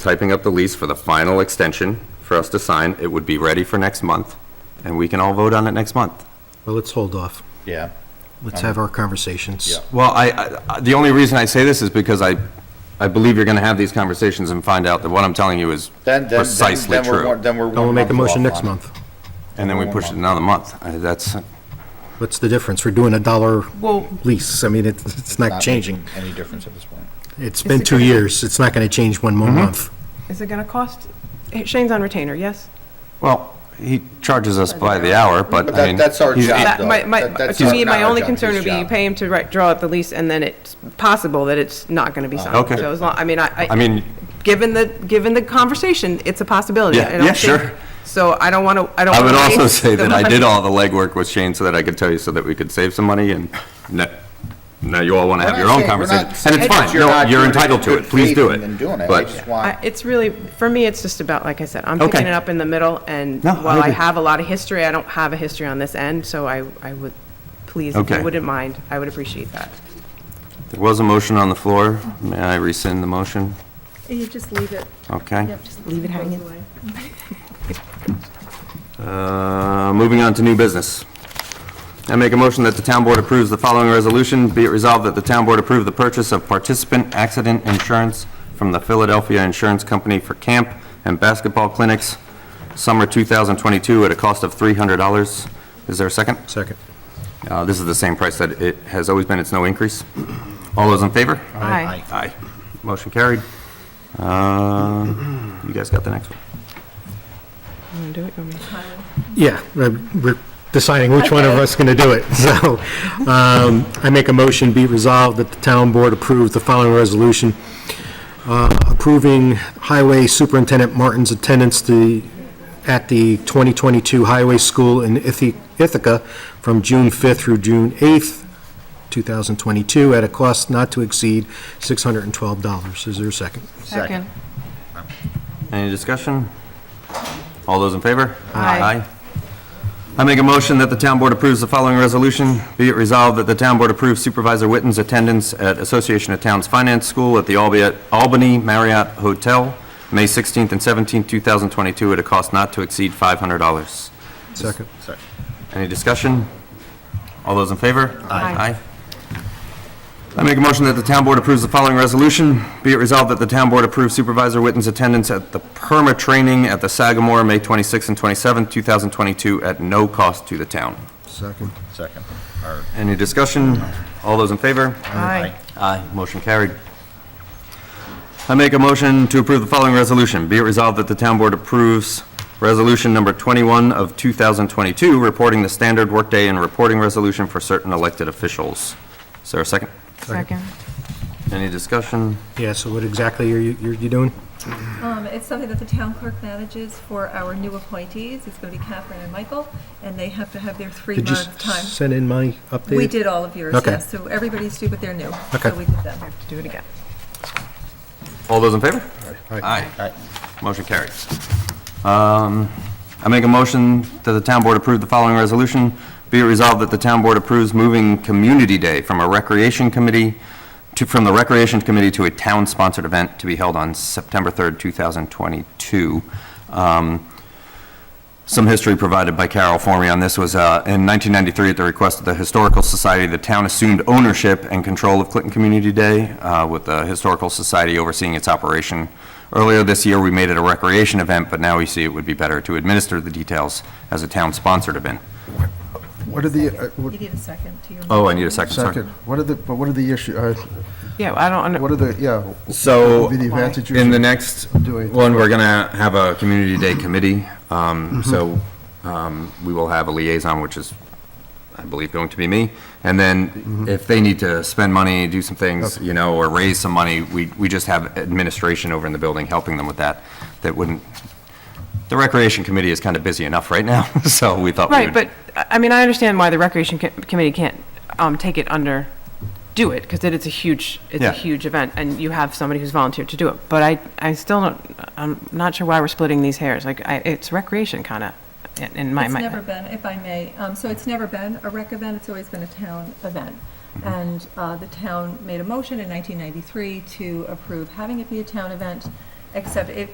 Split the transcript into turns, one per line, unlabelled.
typing up the lease for the final extension for us to sign. It would be ready for next month, and we can all vote on it next month.
Well, let's hold off.
Yeah.
Let's have our conversations.
Yeah.
Well, I- I, I- the only reason I say this is because I, I believe you're going to have these conversations and find out that what I'm telling you is
Then, then, then,
precisely
then we're,
true.
one- then we're.
Then we'll
one
make a motion
off
next
on it.
month.
And then we push it another month. I- That's,
What's the difference? We're doing a dollar lease. I mean, it's, it's not
Not
changing.
making Any difference at this point.
It's been two years. It's not going to change one
Mm-hmm.
more month.
Is it going to cost, Shane's on retainer, yes?
well, he charges us by the hour, but
But
I mean.
that, that's our
he's-
job,
That-
though.
my- my-
That- that's
To
not-
me,
not
my
our
only
job,
concern
his
would be you
job.
pay him to write, draw up the lease, and then it's possible that it's not going to be signed.
Uh, Okay.
So as long, I mean, I.
I mean-
Given the, given the conversation, it's a possibility.
Yeah,
I don't
yeah, sure.
think- So I don't want to, I don't.
I would
wanna
also
waste
say
the
that I did
money.
all the legwork with Shane so that I could tell you so that we could save some money and now, now you all want to
We're
have
not
your own
saying- we're
conversation.
not
And it's
saying
fine.
that you're
No,
not
you're
doing it
entitled
in
to
good
it. Please
faith
do
and- and doing
it.
it. I
But
just want-
I- It's really, for me, it's just about, like I said, I'm picking
Okay.
it up in the middle, and
No, I
while I
agree.
have a lot of history, I don't have a history on this end, so I, I would, please, if
Okay.
you wouldn't mind, I would appreciate that.
there was a motion on the floor. May I rescind the motion?
You just leave it.
Okay.
Yep, just
Leave it
goes
hanging.
away.
Uh, Moving on to new business. I make a motion that the town board approves the following resolution. Be it resolved that the town board approve the purchase of participant accident insurance from the Philadelphia Insurance Company for camp and basketball clinics, summer 2022, at a cost of $300. Is there a second?
Second.
Uh, This is the same price that it has always been. It's no increase. All those in favor?
Aye.
Aye. Motion carried. Uh, You guys got the next one?
You wanna do it? You want me to?
Yeah, we're we're deciding which one of us is going to do it. So um, I make a motion be resolved that the town board approve the following resolution, uh, approving Highway Superintendent Martin's attendance to, at the 2022 Highway School in Ithi- Ithaca from June 5th through June 8th, 2022, at a cost not to exceed $612. Is there a second?
Second.
Any discussion? All those in favor?
Aye.
I make a motion that the town board approves the following resolution. Be it resolved that the town board approves Supervisor Witten's attendance at Association of Towns Finance School at the Albi- Albany Marriott Hotel, May 16th and 17th, 2022, at a cost not to exceed $500.
Second.
Any discussion? All those in favor?
Aye.
I make a motion that the town board approves the following resolution. Be it resolved that the town board approves Supervisor Witten's attendance at the perma training at the Sagamore, May 26th and 27th, 2022, at no cost to the town.
Second.
Second, or,
Any discussion? All those in favor?
Aye.
Aye. Motion carried. I make a motion to approve the following resolution. Be it resolved that the town board approves Resolution Number 21 of 2022, reporting the standard workday and reporting resolution for certain elected officials. Is there a second?
Second.
Any discussion?
Yeah, so what exactly are you, you're you doing?
Um, It's something that the town clerk manages for our new appointees. It's going to be Catherine and Michael, and they have to have their
Did you s-
three-month time.
send in my update?
We did all of yours,
Okay.
yes, so everybody's due, but they're new.
Okay.
So we did them.
Do it again.
All those in favor?
Aye.
Aye.
Motion carried. Um, I make a motion that the town board approve the following resolution. Be it resolved that the town board approves moving Community Day from a recreation committee to, from the Recreation Committee to a town-sponsored event to be held on September 3rd, 2022. Um, some history provided by Carol for me on this was, uh, in 1993, at the request of the Historical Society, the town assumed ownership and control of Clinton Community Day, uh, with the Historical Society overseeing its operation. Earlier this year, we made it a recreation event, but now we see it would be better to administer the details as a town-sponsored event.
What are the, uh, what-
You need a second to your.
Oh, I need a second, sorry.
second, what are the, but what are the issue, uh,
Yeah, I don't, under-
what are the, yeah?
So,
what would be the advantages?
In the next
Doing-
one, we're gonna have a community day committee, um, so, um, we will have a liaison, which is, I believe, going to be me. And then if they need to spend money, do some things, you know, or raise some money, we, we just have administration over in the building helping them with that. That wouldn't, the recreation committee is kind of busy enough right now, so we thought we
right,
would-
but, I I mean, I understand why the Recreation Co- Committee can't um, take it under, do it, because it is a huge, it's
Yeah.
a huge event, and you have somebody who's volunteered to do it. But I, I still don't, I'm not sure why we're splitting these hairs. Like, I, it's recreation kind of, in- in my
It's never
mind.
been, if I may, um, so it's never been a rec event, it's always been a town event.
Mm-hmm.
And uh, the town made a motion in 1993 to approve having it be a town event, except it